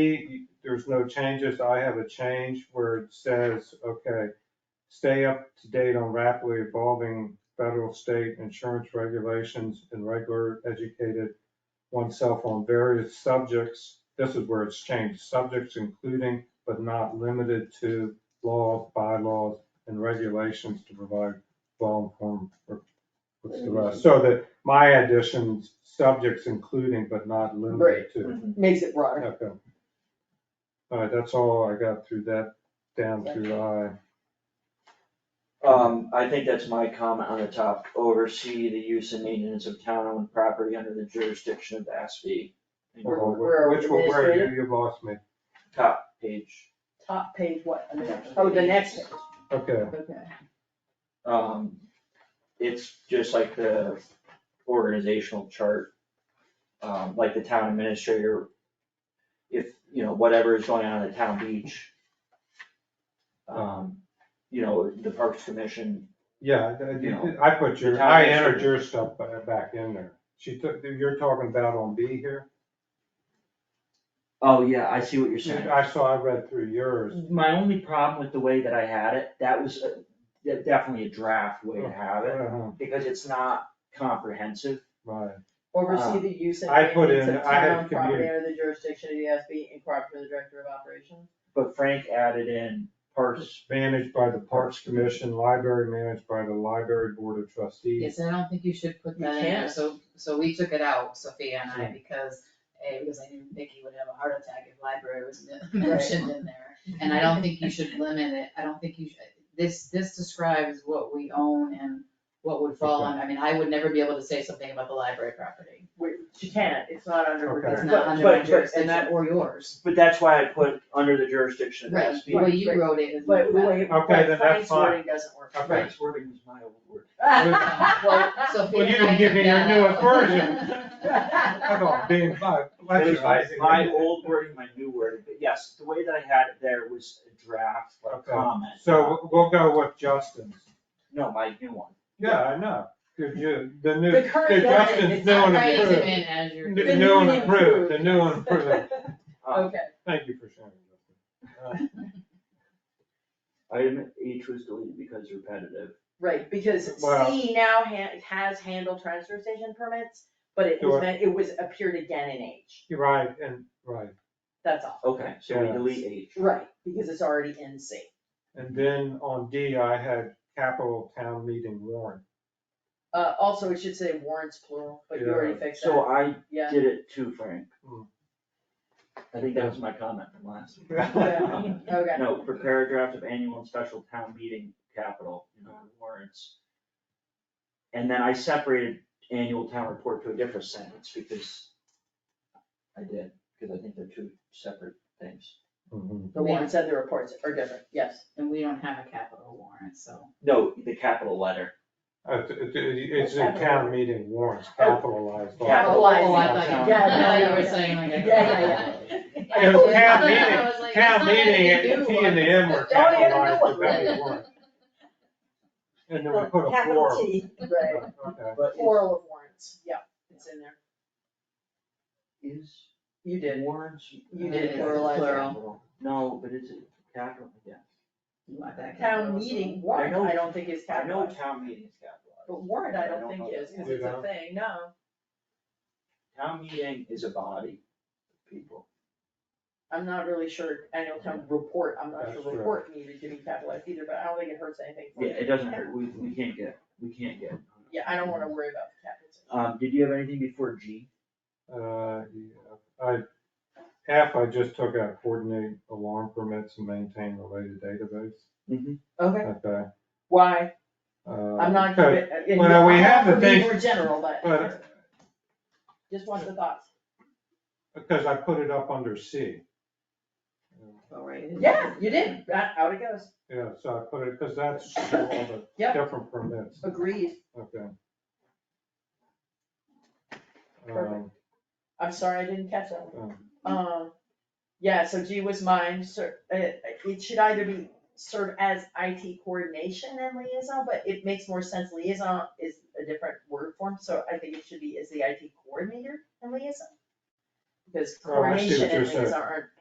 E, there's no changes, I have a change where it says, okay, stay up to date on rapidly evolving federal, state insurance regulations and regular educated oneself on various subjects. This is where it's changed, subjects including but not limited to laws, bylaws, and regulations to provide well-informed. re- What's the rest? So that my additions, subjects including but not limited Right. to. makes it broader. Okay. All right, that's all I got through that, down through I. Um, I think that's my comment on the top, oversee the use and maintenance of town-owned property under the jurisdiction of the SB. Where- Oh, where are we Which one, where are administrative? you, you lost me. Top page, Top page, what? Oh, the next page, Okay, okay. um, it's just like the organizational chart. Um, like the town administrator, if, you know, whatever is going on at town beach. Um, you know, the Parks Commission, yeah, I- I did- I put your, The town I entered administrator. your stuff ba- back in there. She took, you're talking about on B here? oh yeah, I see what you're saying. I saw, I read through yours. My only problem with the way that I had it, that was a- de- definitely a draft way to have it, Uh-huh, because it's not comprehensive. Right, Oversee the use and Uh, I put maintenance in- of I had town property community. under the jurisdiction of the SB in cooperation with the Director of Operations. But Frank added in parts, managed by the Parks Commission, library managed by the Library Board of Trustees. Yes, and I don't think you should put You that in there, can't. so, so we took it out, Sophia and I, because, A, because I knew Nikki would have a heart attack if library was men- mentioned in there. And I don't think you should limit it, I don't think you should, this, this describes what we own and what would fall on, I mean, I would never be able to say something about the library property. Which you can't, it's not under. Okay. It's reserve. not But- under but- my and jurisdiction that- or yours. but that's why I put under the jurisdiction of the Right, SB. the way you right. wrote it is. But the way, Okay, but then that's Frank's fine. wording doesn't work. Okay. Frank's wording was my old word. Well, Sophia Well, you and I didn't give took me your that newest out. version. I thought being, I, I It was my, just- my old wording, my new wording, but yes, the way that I had it there was a draft, like Okay. a comment. Uh, So we'll- we'll go with Justin's. No, my new one. Yeah, I know, cause you, the new, The the current version, Justin's it's new not and Write it improved. in as your. New new and improved, the new and improved, Um, Okay, thank you for sharing. Justin. Item H was deleted because repetitive. right, because Well- C now ha- has handled transfer station permits, but it Sure. was, meant- it was, appeared again in H, You're Uh, right, and, right, that's all. Okay, so we Yeah. delete H. Right, because it's already in C. and then on D, I had capital town meeting warrant. Uh, also, it should say warrants plural, but you already fixed So that, I yeah. did it too, Frank. Hmm. I think that was my comment from last week. Yeah. Okay, No, prepare a draft of annual and special town meeting capital, you know, warrants. And then I separated annual town report to a different sentence because I did, because I think they're two separate things. Mhm. the warrants and the reports are different, yes. And we don't have a capital warrant, so. No, the capital letter. Uh, t- t- It's in town meeting warrants, capitalized. all. Capital. Capitalizing. Oh, I thought you, Yeah, I no, thought you yeah. were saying like. a- Yeah, yeah, It was town I was meeting, town like, that's not meeting, a and new T and the one. M were Oh, yeah, the new capitalized, one. but that was warrant. And then we put a four. Right, Okay. But is- plural of warrants, yeah, it's in there. is You warrants. You did Yeah, pluralize it. capital. No, but it's a capital, yeah. You want Town that capital, so- meeting warrant, I know- I don't think is I know capitalized, town meeting is capitalized. but warrant I don't think know is, that. cause You it's a don't? thing, no. Town meeting is a body of people. I'm not really sure annual town report, I'm not That's sure true. report needed to be capitalized either, but I don't think it hurts anything. for Yeah, you. it doesn't hurt, we, we can't get, we can't get. Yeah, I don't wanna worry about the capitalization. Um, did you have anything before G? Uh, yeah, I, F, I just took out coordinate alarm permits and maintain related database. Okay, Okay. why, uh, I'm not, because- convi- uh, you know, Well, we I'm have not the for being thing- more general, But, Just want the thoughts. because I put it up under C. Oh, right, it is. Yeah, you did, that, out it goes, Yeah, so I put it, because that's all the Yep. different permits, agreed. okay. Um, Perfect. I'm sorry, I didn't catch that one. um, Um, yeah, so G was mine, cer- uh, it should either be serve as IT coordination and liaison, but it makes more sense, liaison is a different word form, so I think it should be as the IT coordinator and liaison. Because Oh, I see what coordination and you're saying. liaison aren't